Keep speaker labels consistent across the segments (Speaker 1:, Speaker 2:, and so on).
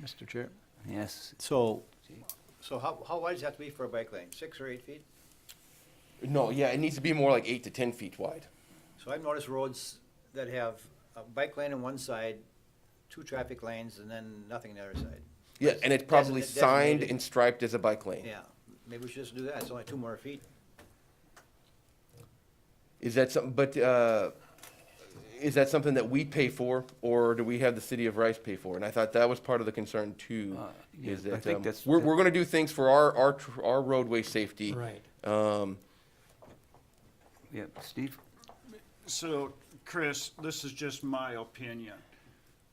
Speaker 1: Mr. Chair.
Speaker 2: Yes.
Speaker 1: So,
Speaker 3: So how, how wide does it have to be for a bike lane? Six or eight feet?
Speaker 4: No, yeah, it needs to be more like eight to ten feet wide.
Speaker 3: So I've noticed roads that have a bike lane on one side, two traffic lanes, and then nothing on the other side.
Speaker 4: Yeah, and it's probably
Speaker 3: Designated.
Speaker 4: signed and striped as a bike lane.
Speaker 3: Yeah, maybe we should just do that. It's only two more feet.
Speaker 4: Is that something? But uh, is that something that we pay for, or do we have the city of Rice pay for? And I thought that was part of the concern too.
Speaker 2: Uh,
Speaker 4: is
Speaker 2: yeah,
Speaker 4: that
Speaker 2: I think
Speaker 4: um,
Speaker 2: that's-
Speaker 4: we're, we're going to do things for our our tr- our roadway safety.
Speaker 5: Right.
Speaker 4: Um,
Speaker 2: Yeah, Steve?
Speaker 6: So, Chris, this is just my opinion.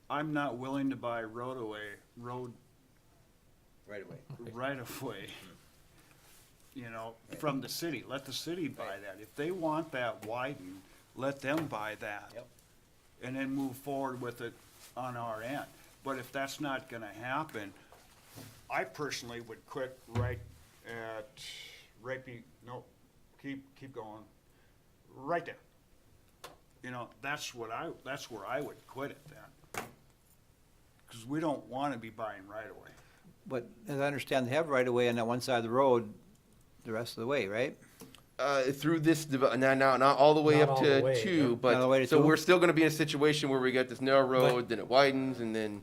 Speaker 6: I'm not willing to buy road away, road
Speaker 3: Right away.
Speaker 6: right of way. You know, from the city. Let the city buy that. If they want that widened, let them buy that.
Speaker 3: Yep.
Speaker 6: And then move forward with it on our end. But if that's not gonna happen, I personally would quit right at, right be, no, keep, keep going. Right there. You know, that's what I, that's where I would quit it then. Cause we don't wanna be buying right away.
Speaker 3: But as I understand, they have right away on that one side of the road the rest of the way, right?
Speaker 4: uh, through this, dev- now, now, not all the way
Speaker 5: Not
Speaker 4: up
Speaker 5: all
Speaker 4: to
Speaker 5: the way,
Speaker 4: two,
Speaker 5: yeah.
Speaker 4: but
Speaker 3: Not all the way to
Speaker 4: so
Speaker 3: two?
Speaker 4: we're still going to be in a situation where we got this narrow road, then it widens, and then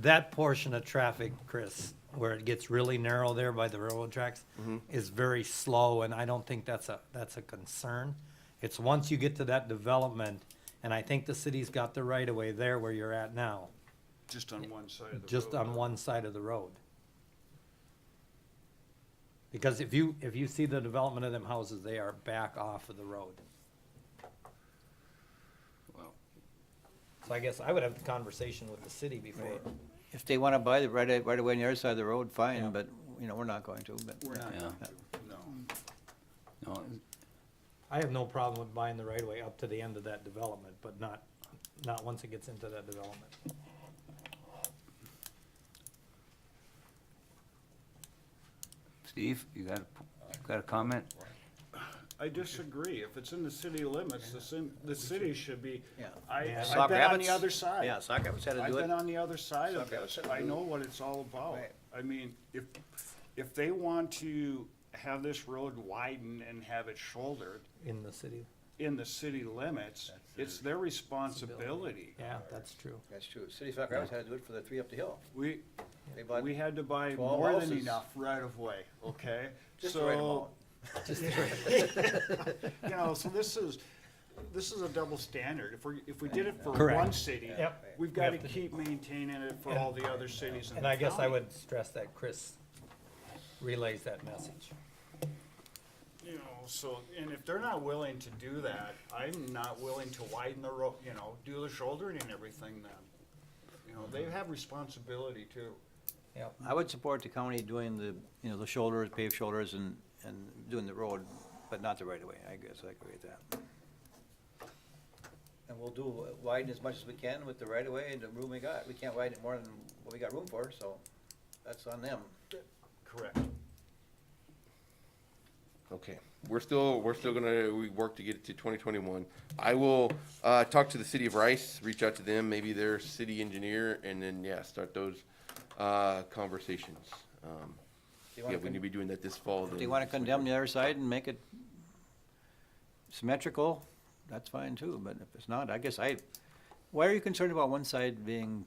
Speaker 5: That portion of traffic, Chris, where it gets really narrow there by the railroad tracks,
Speaker 6: Mm-hmm.
Speaker 5: is very slow, and I don't think that's a, that's a concern. It's once you get to that development, and I think the city's got the right of way there where you're at now,
Speaker 6: Just on one side of the
Speaker 5: just
Speaker 6: road.
Speaker 5: on one side of the road. Because if you, if you see the development of them houses, they are back off of the road.
Speaker 2: Well,
Speaker 5: So I guess I would have the conversation with the city before.
Speaker 3: If they want to buy the right, right away on the other side of the road, fine, but, you know, we're not going to, but.
Speaker 6: We're not
Speaker 2: Yeah.
Speaker 6: going to, no.
Speaker 2: no,
Speaker 5: I have no problem with buying the right of way up to the end of that development, but not, not once it gets into that development.
Speaker 2: Steve, you got, a got a comment?
Speaker 6: I disagree. If it's in the city limits, the sim, the city should be,
Speaker 3: Yeah.
Speaker 6: I,
Speaker 3: Sock
Speaker 6: I've been on
Speaker 3: rabbits?
Speaker 6: the other side.
Speaker 3: Yeah, Sock Rapids had to
Speaker 6: I've
Speaker 3: do it.
Speaker 6: been on the other side
Speaker 3: Sock
Speaker 6: of
Speaker 3: rabbits
Speaker 6: this.
Speaker 3: had to
Speaker 6: I
Speaker 3: do
Speaker 6: know what it's all about.
Speaker 3: Right.
Speaker 6: I mean, if, if they want to have this road widened and have it shouldered
Speaker 5: In the city.
Speaker 6: in the city limits, it's their responsibility.
Speaker 5: Yeah, that's true.
Speaker 3: That's true. City of Sock Rapids had to do it for the three up the hill.
Speaker 6: We,
Speaker 3: They bought
Speaker 6: we had to buy
Speaker 3: 12
Speaker 6: more than
Speaker 3: houses.
Speaker 6: enough right of way, okay?
Speaker 3: just the right
Speaker 6: So-
Speaker 3: amount.
Speaker 6: You know, so this is, this is a double standard. If we, if we did it for
Speaker 5: Correct.
Speaker 6: one city,
Speaker 5: Yep.
Speaker 6: we've got to
Speaker 5: Yep.
Speaker 6: keep maintaining it for all the other cities in the
Speaker 5: And I guess I
Speaker 6: county.
Speaker 5: would stress that Chris relays that message.
Speaker 6: You know, so, and if they're not willing to do that, I'm not willing to widen the road, you know, do the shouldering and everything then. You know, they have responsibility too.
Speaker 5: Yep.
Speaker 3: I would support the county doing the, you know, the shoulders, paved shoulders and, and doing the road, but not the right of way. I guess I agree with that. And we'll do, widen as much as we can with the right of way and the room we got. We can't widen it more than what we got room for, so that's on them.
Speaker 6: Correct.
Speaker 4: Okay, we're still, we're still gonna, we work to get it to twenty twenty-one. I will, uh, talk to the city of Rice, reach out to them, maybe their city engineer, and then, yeah, start those, uh, conversations. Um,
Speaker 3: They wanna
Speaker 4: Yeah, we
Speaker 3: con-
Speaker 4: need to be doing that this fall.
Speaker 3: If they
Speaker 4: then.
Speaker 3: wanna condemn the other side and make it symmetrical, that's fine too, but if it's not, I guess I, why are you concerned about one side being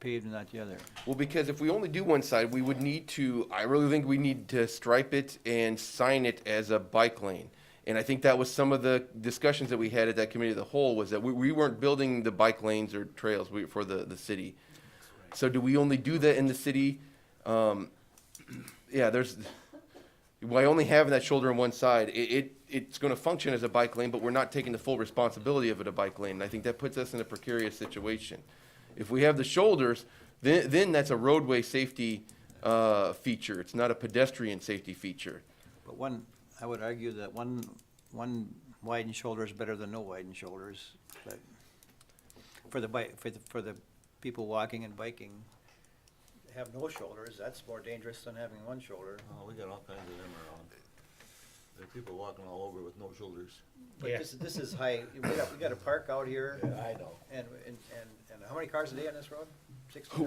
Speaker 3: paved and not the other?
Speaker 4: Well, because if we only do one side, we would need to, I really think we need to stripe it and sign it as a bike lane. And I think that was some of the discussions that we had at that committee of the whole, was that we, we weren't building the bike lanes or trails we- for the, the city. So do we only do that in the city? Um, yeah, there's, by only having that shoulder on one side, it, it, it's gonna function as a bike lane, but we're not taking the full responsibility of it a bike lane. And I think that puts us in a precarious situation. If we have the shoulders, then, then that's a roadway safety, uh, feature. It's not a pedestrian safety feature.
Speaker 3: But one, I would argue that one, one widened shoulder is better than no widened shoulders, but for the bike, for the, for the people walking and biking, have no shoulders, that's more dangerous than having one shoulder.
Speaker 7: Oh, we got all kinds of them around. There are people walking all over with no shoulders.
Speaker 3: But this, this is high, we got, we got a park out here,
Speaker 7: I know.
Speaker 3: and, and, and- and how many cars a day on this road? Sixty?